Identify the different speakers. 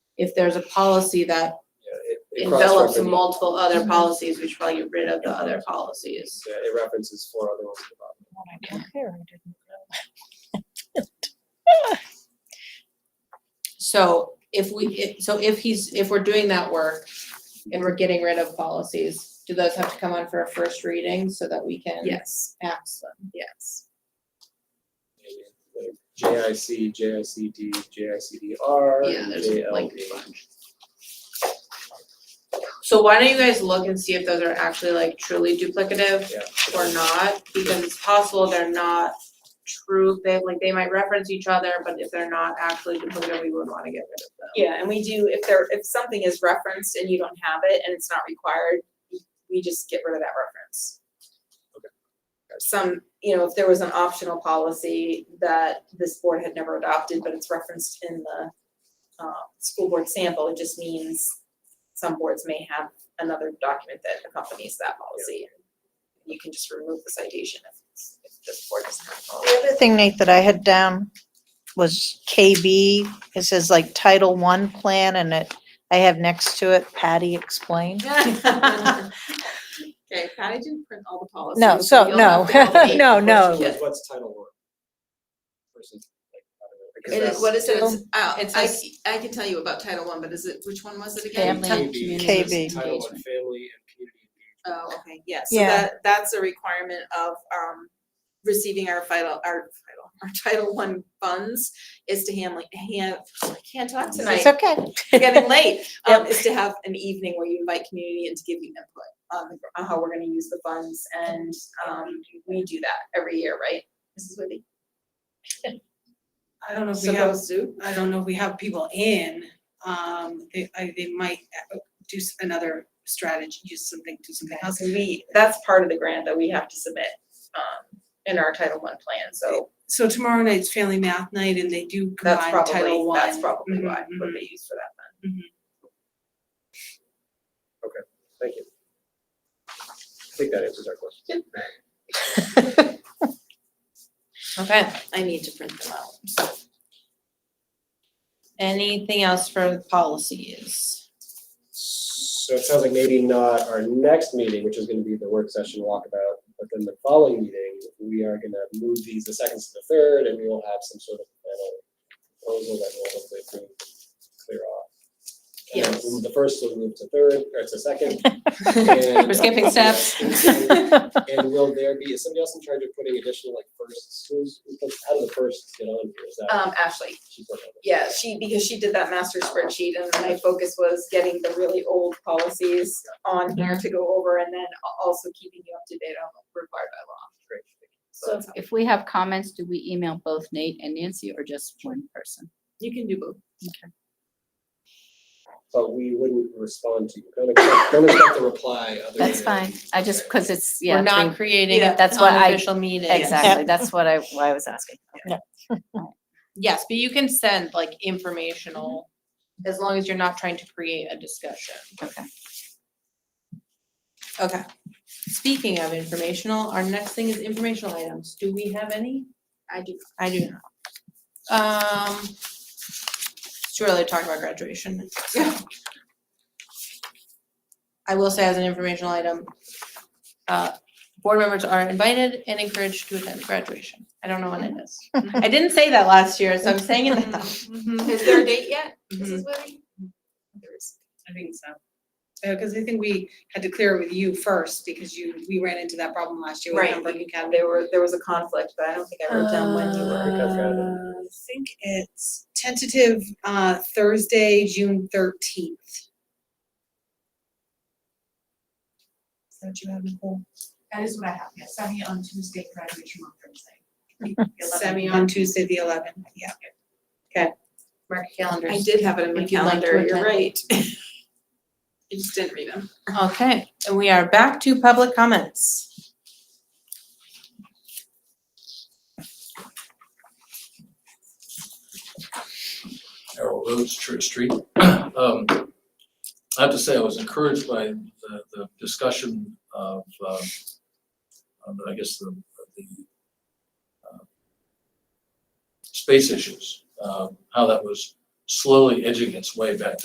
Speaker 1: if there's a policy that
Speaker 2: Yeah, it- it
Speaker 1: envelops
Speaker 2: cross-references-
Speaker 1: multiple other policies, we should probably get rid of the other policies.
Speaker 2: Yeah, it references four other ones at the bottom.
Speaker 1: So if we, if- so if he's, if we're doing that work and we're getting rid of policies, do those have to come on for a first reading so that we can
Speaker 3: Yes,
Speaker 1: pass them?
Speaker 3: yes.
Speaker 2: Like JIC, JICD, JICDR.
Speaker 1: Yeah, there's like a bunch. So why don't you guys look and see if those are actually like truly duplicative?
Speaker 2: Yeah.
Speaker 1: or not, because it's possible they're not true, they, like, they might reference each other, but if they're not actually duplicative, we would wanna get rid of them.
Speaker 3: Yeah, and we do, if there, if something is referenced and you don't have it and it's not required, we just get rid of that reference.
Speaker 2: Okay.
Speaker 3: Some, you know, if there was an optional policy that this board had never adopted, but it's referenced in the uh, school board sample, it just means some boards may have another document that accompanies that policy. You can just remove the citation if, it's- if this board doesn't have a policy.
Speaker 4: The other thing, Nate, that I had down was KB. It says like Title One Plan and it, I have next to it Patty explained.
Speaker 3: Okay, Patty didn't print all the policies.
Speaker 4: No, so,
Speaker 3: you'll have
Speaker 4: no,
Speaker 3: to go make-
Speaker 4: no,
Speaker 2: Question
Speaker 4: no.
Speaker 2: was, What's title one? Versus like. I don't know, because
Speaker 3: It is,
Speaker 2: that's-
Speaker 3: what is it? It's,
Speaker 4: Um,
Speaker 3: oh,
Speaker 1: it's
Speaker 3: I,
Speaker 1: like-
Speaker 3: I can tell you about Title One, but is it, which one was it again?
Speaker 5: Family
Speaker 2: Title
Speaker 5: and
Speaker 2: KB.
Speaker 5: community
Speaker 4: KB.
Speaker 2: Title one,
Speaker 5: engagement.
Speaker 2: family and community engagement.
Speaker 3: Oh, okay, yes, so
Speaker 4: Yeah.
Speaker 3: that, that's a requirement of, um, receiving our vital, our vital, our Title One funds is to handle, hand, I can't talk tonight.
Speaker 4: It's okay.
Speaker 3: getting late, um, is to have an evening where you invite community and to give you input on the- on how we're gonna use the funds, and, um, we do that every year, right, Mrs. Whitty?
Speaker 6: I don't know if
Speaker 3: So
Speaker 6: we have,
Speaker 3: those do,
Speaker 6: I don't know if we have people in, um, they, I, they might uh, do s- another strategy, use something, do something else.
Speaker 3: we, that's part of the grant that we have to submit, um, in our Title One plan, so
Speaker 6: So tomorrow night's family math night and they do
Speaker 3: that's
Speaker 6: combine Title
Speaker 3: probably,
Speaker 6: One.
Speaker 3: that's
Speaker 5: Mm-hmm,
Speaker 3: probably why,
Speaker 6: Mhm,
Speaker 3: what
Speaker 6: mhm.
Speaker 3: they use for that fund.
Speaker 2: Thank you. I think that answers our question.
Speaker 1: Okay,
Speaker 3: I need to print them out.
Speaker 1: anything else for the policies?
Speaker 2: So it sounds like maybe not our next meeting, which is gonna be the work session walkabout, but then the following meeting, we are gonna move these the second to the third, and we will have some sort of final proposal that will hopefully prove clear off. And then
Speaker 1: Yes.
Speaker 2: from The first will move to third, or to second. We're
Speaker 1: skipping steps.
Speaker 2: And will there be, is somebody else in charge of putting additional like firsts, who's, who's- how do the firsts get on here, is that?
Speaker 3: Um, Ashley,
Speaker 2: she's working on it?
Speaker 3: yeah, she, because she did that master spreadsheet and my focus was getting the really old policies on
Speaker 5: Mm-hmm.
Speaker 3: here to go over and then al- also keeping you up to date on what required by law.
Speaker 2: Great.
Speaker 3: So it's-
Speaker 5: If we have comments, do we email both Nate and Nancy or just one person?
Speaker 3: you can do both.
Speaker 2: But we wouldn't respond to you, don't expect, don't expect a reply other than.
Speaker 5: That's fine. I just, because it's, yeah.
Speaker 1: We're not
Speaker 5: three-
Speaker 1: creating
Speaker 3: Yeah,
Speaker 1: an
Speaker 5: that's what I-
Speaker 1: unofficial meeting.
Speaker 5: Exactly. That's what I, why I was asking.
Speaker 1: Yes, but you can send like informational, as long as you're not trying to create a discussion.
Speaker 5: Okay.
Speaker 1: Okay. Speaking of informational, our next thing is informational items. Do we have any? I do. I do not. Um, it's too early to talk about graduation. I will say as an informational item, uh, board members are invited and encouraged to attend graduation. I don't know when it is. I didn't say that last year, so I'm saying it now.
Speaker 3: Mm-hmm. Is there a date yet,
Speaker 6: Mhm.
Speaker 3: Mrs. Whitty? There is.
Speaker 6: I think so. Uh, cause I think we had to clear it with you first because you, we ran into that problem last year with
Speaker 3: Right,
Speaker 6: Pembroke
Speaker 3: and
Speaker 6: Academy.
Speaker 3: there were, there was a conflict, but I don't think I wrote down when you were.
Speaker 2: I've got it.
Speaker 6: Uh, I think it's tentative, uh, Thursday, June thirteenth. Is that what you have, Nicole?
Speaker 7: That is what I have, yes, semi on Tuesday, graduation on Thursday.
Speaker 6: Semi on Tuesday, the eleventh, yeah.
Speaker 1: Mark your calendars.
Speaker 3: I did have it in my
Speaker 1: If you'd like to
Speaker 3: calendar, you're
Speaker 1: attend.
Speaker 3: right. I just didn't read them.
Speaker 1: Okay, and we are back to public comments.
Speaker 8: Harold Rhodes Church Street. Um, I have to say, I was encouraged by the, the discussion of, um, of, I guess, the, the uh, um, space issues, um, how that was slowly edging its way back to